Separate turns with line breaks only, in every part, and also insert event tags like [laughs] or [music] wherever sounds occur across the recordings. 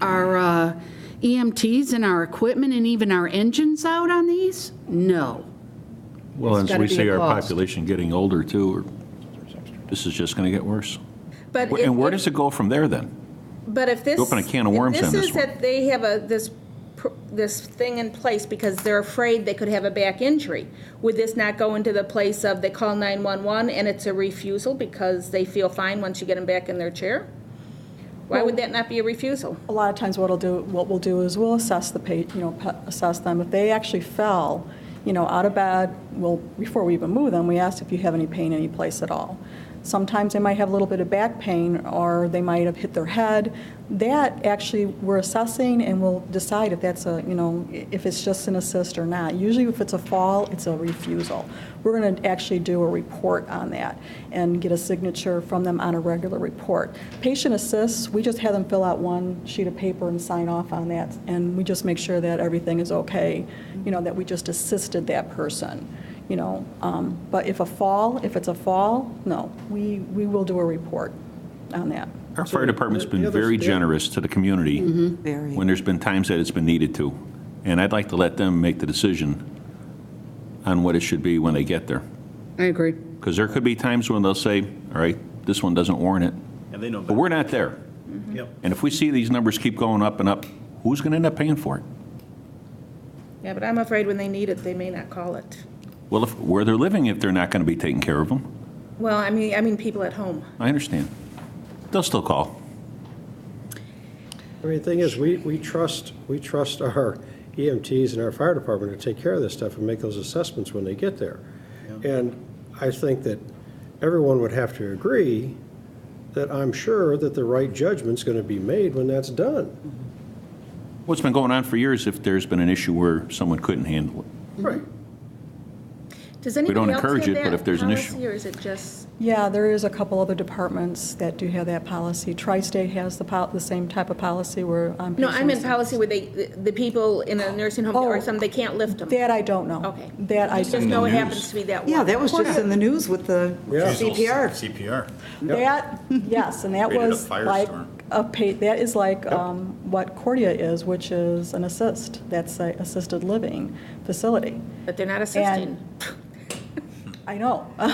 our uh, EMTs and our equipment and even our engines out on these? No.
Well,
It's
as we
gotta be
see
a
our
cost.
population getting older too, we're- this is just going to get worse.
But
Wh-
if-
And where
if-
does it go from there then?
But if this.
open a can of worms
if
on this
is
one.
that they have a, this, pr- this thing in place because they're afraid they could have a back injury. Would this not go into the place of they call 911 and it's a refusal because they feel fine once you get them back in their chair? Why would that not be a refusal?
A lot of times what I'll do, what we'll do is we'll assess the pa, you know, pa- assess them. If they actually fell, you know, out of bed, well, before we even move them, we ask if you have any pain any place at all. Sometimes they might have a little bit of back pain or they might have hit their head. That actually, we're assessing and we'll decide if that's a, you know, i- if it's just an assist or not. Usually if it's a fall, it's a refusal. We're going to actually do a report on that and get a signature from them on a regular report. Patient assists, we just have them fill out one sheet of paper and sign off on that, and we just make sure that everything is okay, you know, that we just assisted that person, you know. Um, But if a fall, if it's a fall, no, we, we will do a report on that.
Our fire department's been very generous to the community when there's been times that it's been needed to. And I'd like to let them make the decision on what it should be when they get there.
I agree.
Because there could be times when they'll say, all right, this one doesn't warrant it.
And they know Mm-hmm.
But we're not there.
Yep.
And if we see these numbers keep going up and up, who's going to end up paying for it?
Yeah, but I'm afraid when they need it, they may not call it.
Well, if, where they're living, if they're not going to be taking care of them,
Well, I mean, I mean people at home.
I understand. They'll still call.
I mean, the thing is, we, we trust, we trust our EMTs and our fire department to take care of this stuff and make those assessments when they get there. And I think that everyone would have to agree that I'm sure that the right judgment's going to be made when that's done.
What's been going on for years, if there's been an issue where someone couldn't handle it.
Right.
Does
don't
anybody else have
encourage it, but
that
if there's an
policy,
issue.
Or is it just,
Yeah, there is a couple other departments that do have that policy. Tri-State has the, pol- the same type of policy where um, on.
no, I'm in
patient-
policy where they, the the people in a nursing home or
Oh.
something, they can't lift them.
That I don't know.
Okay.
That I
Just
don't know.
know it happens to be that one.
Yeah, that was just in the news with the
Yeah.
CPR.
CPR.
That, yes, and that
Created a
was like
firestorm.
a pay, that is like um, what Cordia is, which is an assist. That's a assisted living facility.
But they're not assisting.
I know. [laughs] I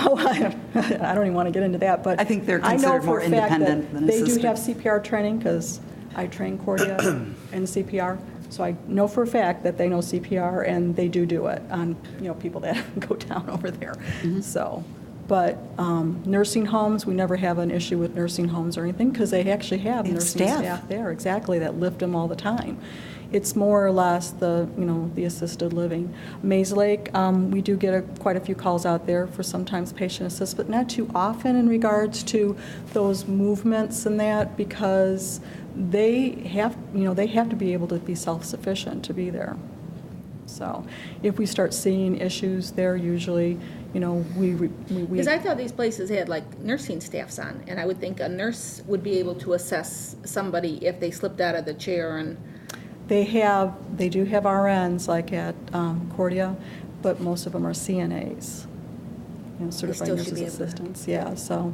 don't [laughs] even want to get into that, but.
I think they're
I know
considered
for
more
a fact that
independent than
They
assisted.
do have CPR training because I train Cordia
[clears throat]
in CPR. So I know for a fact that they know CPR and they do do it on, you know, people that [laughs] go down over there.
Mm-hmm.
So, but um, nursing homes, we never have an issue with nursing homes or anything because they actually have
They have
nursing
staff.
staff there, exactly, that lift them all the time. It's more or less the, you know, the assisted living. Maze Lake, um, we do get a- quite a few calls out there for sometimes patient assist, but not too often in regards to those movements and that, because they have, you know, they have to be able to be self-sufficient to be there. So if we start seeing issues there, usually, you know, we, re- we. we-
Because I thought these places had like nursing staffs on, and I would think a nurse would be able to assess somebody if they slipped out of the chair and,
They have, they do have RNs like at um, Cordia, but most of them are CNAs, you know, certified
still should
nurses
be able to-
assistants, yeah, so.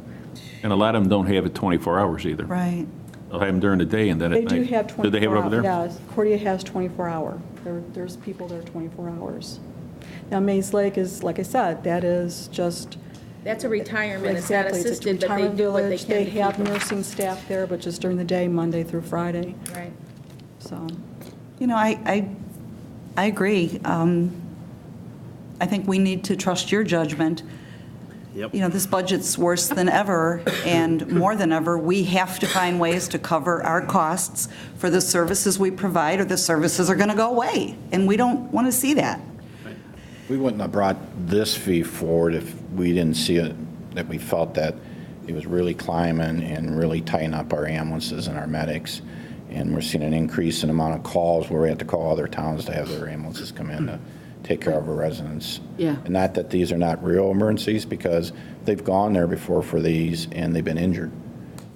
And a lot of them don't have it 24 hours either.
Right.
They'll have them during the day and then at
They
night.
do have 24 hours.
Do they have it over there?
Yes, Cordia has 24-hour. There, there's people there 24 hours. Now, Maze Lake is, like I said, that is just,
that's a retirement, it's not
exactly, it's a
assisted, but they
retirement
do what they
village.
can
They
to
have
keep them.
nursing staff there, but just during the day, Monday through Friday,
Right.
so.
You know, I, I, I agree. Um, I think we need to trust your judgment.
Yep.
You know, this budget's worse than ever, and more than ever, we have to find ways to cover our costs for the services we provide, or the services are going to go away, and we don't want to see that.
We wouldn't have brought this fee forward if we didn't see it, that we felt that it was really climbing and really tying up our ambulances and our medics. And we're seeing an increase in amount of calls where we have to call other towns to have their ambulances come in to take care of our residents.
Yeah.
And not that these are not real emergencies, because they've gone there before for these and they've been injured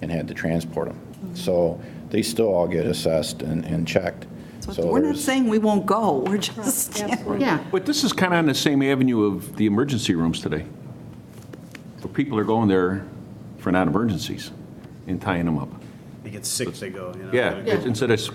and had to transport them. So they still all get assessed and, and checked.
So we're not
there's-
saying we won't go, we're just,
Yeah.
But this is kind of on the same avenue of the emergency rooms today, where people are going there for non-emergencies and tying them up.
They get sick, they go, you know.
Yeah,
gotta go
instead of